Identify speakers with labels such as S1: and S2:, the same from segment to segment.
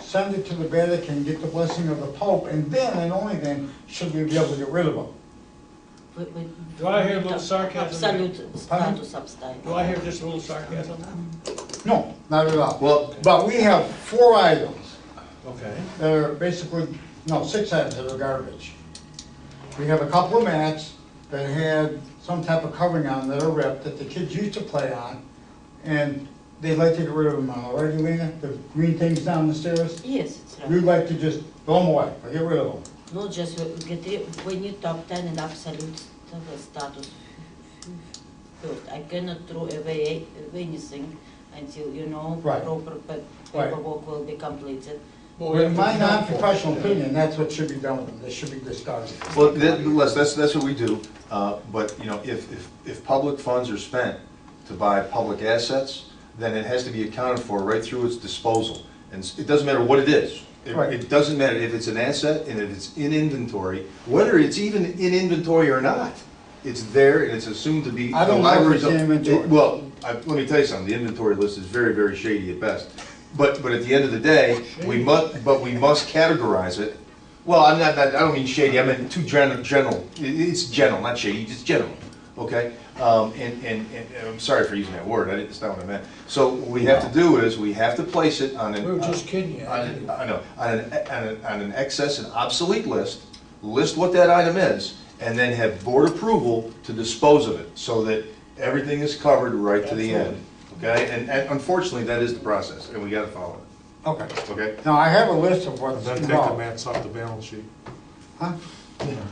S1: send it to the Vatican, get the blessing of the Pope, and then and only then should we be able to get rid of them.
S2: We- we-
S3: Do I hear a little sarcasm here?
S2: Absolute
S1: Pardon?
S2: status abstain.
S3: Do I hear just a little sarcasm?
S1: No, not at all.
S4: Well-
S1: But we have four items
S3: Okay.
S1: that are basically, no, six items that are garbage. We have a couple of mats that had some type of covering on that are ripped that the kids used to play on, and they'd like to get rid of them now, right, Elena? The green things down the stairs?
S2: Yes, it's
S1: We'd
S2: right.
S1: like to just throw them away, or get rid of them.
S2: No, just we- we get rid, we need to obtain an absolute sta- status first. I cannot throw away a- anything until, you know,
S1: Right.
S2: proper pa-
S1: Right.
S2: paperwork will be completed.
S1: Well, in my non-professional opinion, that's what should be done with them, they should be discarded.
S4: Well, that, Les, that's, that's what we do, uh, but, you know, if, if, if public funds are spent to buy public assets, then it has to be accounted for right through its disposal. And s- it doesn't matter what it is. It,
S1: Right.
S4: it doesn't matter if it's an asset and if it's in inventory, whether it's even in inventory or not. It's there and it's assumed to be.
S1: I don't
S4: the
S1: know if
S4: library's
S1: it's in
S4: up-
S1: inventory.
S4: it- Well, I, let me tell you something, the inventory list is very, very shady at best. But, but at the end of the day, we must, but we must categorize it. Well, I'm not, I don't mean shady, I meant too general, general, It- it's general, not shady, it's general, okay? Um, and, and, and and I'm sorry for using that word, I didn't, that's not what I meant. So what we have to do is, we have to place it on an.
S3: We were just kidding you.
S4: On an, I know, on an, on an, on an excess and obsolete list, list what that item is, and then have board approval to dispose of it, so that everything is covered right to the end, okay? And, and unfortunately, that is the process, and we gotta follow
S1: Okay.
S4: it, okay?
S1: Now, I have a list of what's
S5: Then take the
S1: involved.
S5: mats off the balance sheet.
S1: Huh?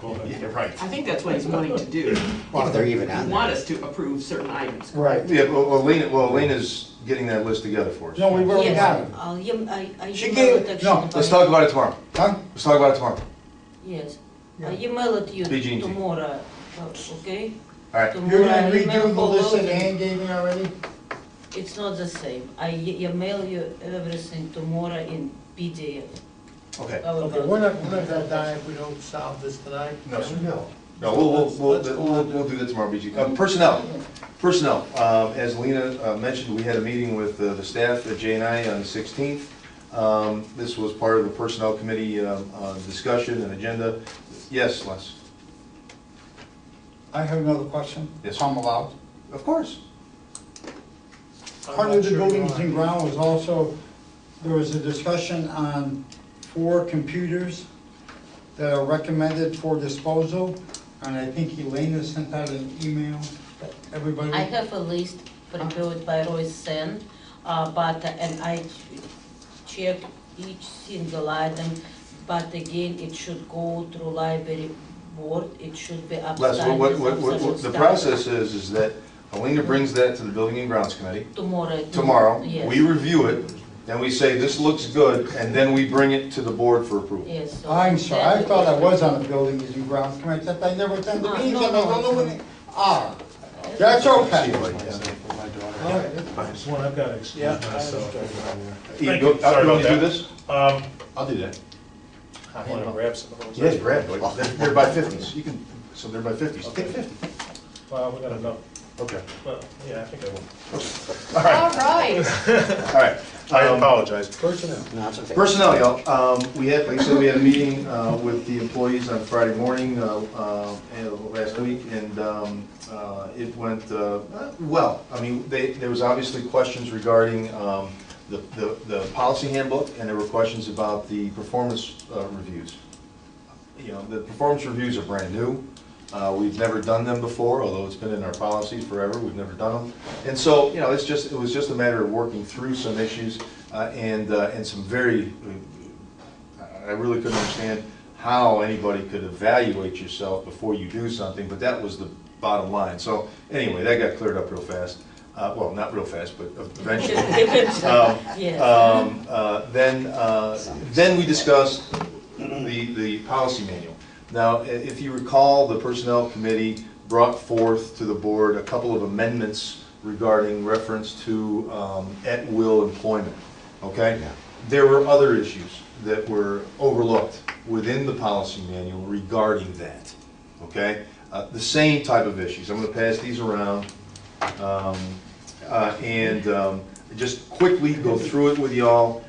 S5: Go ahead.
S4: Yeah, right.
S6: I think that's what he's wanting to do.
S7: Well, they're even on
S6: You
S7: there.
S6: want us to approve certain items.
S1: Right.
S4: Yeah, well, Elena, well, Elena's getting that list together for us.
S1: No, we already got it.
S2: Yes, I'll, em- I, I
S1: She
S2: email
S1: gave
S2: it
S1: it-
S2: actually.
S1: no,
S4: Let's
S2: by-
S4: talk about it tomorrow.
S1: Huh?
S4: Let's talk about it tomorrow.
S2: Yes, I email it you
S4: PG&T.
S2: tomorrow, uh, okay?
S4: All right.
S1: You're
S2: Tomorrow
S1: gonna
S2: I
S1: redo
S2: email
S1: the
S2: all
S1: list
S2: of
S1: that
S2: you.
S1: Ann gave me already?
S2: It's not the same. I e- email you everything tomorrow in PDF.
S4: Okay.
S8: Okay, we're not, we're not gonna die if we don't solve this tonight.
S4: No, sir.
S8: No.
S4: No, we'll, we'll,
S8: Let's-
S4: we'll,
S8: let's go
S4: we'll,
S8: on to-
S4: we'll do that tomorrow, BG. Uh, Personnel, personnel, uh, as Lena uh, mentioned, we had a meeting with uh, the staff at J and I on the sixteenth. Um, this was part of the personnel committee, um, uh, discussion and agenda. Yes, Les?
S1: I have another question.
S4: Yes.
S1: If I'm allowed.
S4: Of course.
S5: I'm
S1: Part
S5: not
S1: of the
S5: sure you
S1: buildings
S5: are.
S1: and ground was also, there was a discussion on four computers that are recommended for disposal, and I think Elena sent out an email to everybody.
S2: I have a list prepared by Roy Sen, uh, but, and I ch- checked each single item, but again, it should go through library board, it should be
S4: Les, what-
S2: upside.
S4: what,
S2: as
S4: what, what,
S2: absolute
S4: what- the
S2: status.
S4: process is, is that Elena brings that to the building and grounds committee.
S2: Tomorrow. it-
S4: tomorrow,
S2: Yes.
S4: we review it, then we say, this looks good, and then we bring it to the board for approval.
S2: Yes. so
S1: I'm sorry, I
S2: then-
S1: thought I was on the buildings and grounds committee, except I never attended the
S2: No,
S1: meetings,
S2: no,
S1: and I don't
S2: no.
S1: know when they are. That's okay.
S8: All right, that's fine.
S5: This one I've got to excuse
S8: Yeah, I
S5: myself.
S4: Ian, go- uh,
S5: Sorry
S4: you want to do
S5: about that.
S4: this?
S5: Um,
S4: I'll do that.
S5: I want to grab some of those.
S4: Yes, Brad, they're, they're by fifties, you can, so they're by fifties, take fifty.
S5: Well, we got enough,
S4: Okay.
S5: but, yeah, I think I will.
S6: All right.
S4: All right.
S5: I
S4: Um,
S5: apologize.
S8: Personnel.
S7: No, it's okay.
S4: Personnel, y'all, um, we had, like I said, we had a meeting, uh, with the employees on Friday morning, uh, uh, and last week, and, um, uh, it went, uh, well. I mean, they, there was obviously questions regarding, um, the, the, the policy handbook, and there were questions about the performance, uh, reviews. You know, the performance reviews are brand new. Uh, We've never done them before, although it's been in our policies forever, we've never done them. And so, you know, it's just, it was just a matter of working through some issues uh, and, uh, and some very, I really couldn't understand how anybody could evaluate yourself before you do something, but that was the bottom line. So anyway, that got cleared up real fast. Uh, Well, not real fast, but eventually. Um,
S2: Yes.
S4: um, uh, Then, uh, then we discussed the, the policy manual. Now, i- if you recall, the Personnel Committee brought forth to the board a couple of amendments regarding reference to um, at-will employment, okay? There were other issues that were overlooked within the policy manual regarding that, okay? Uh, The same type of issues. I'm gonna pass these around. Um, uh, And um, just quickly go through it with y'all.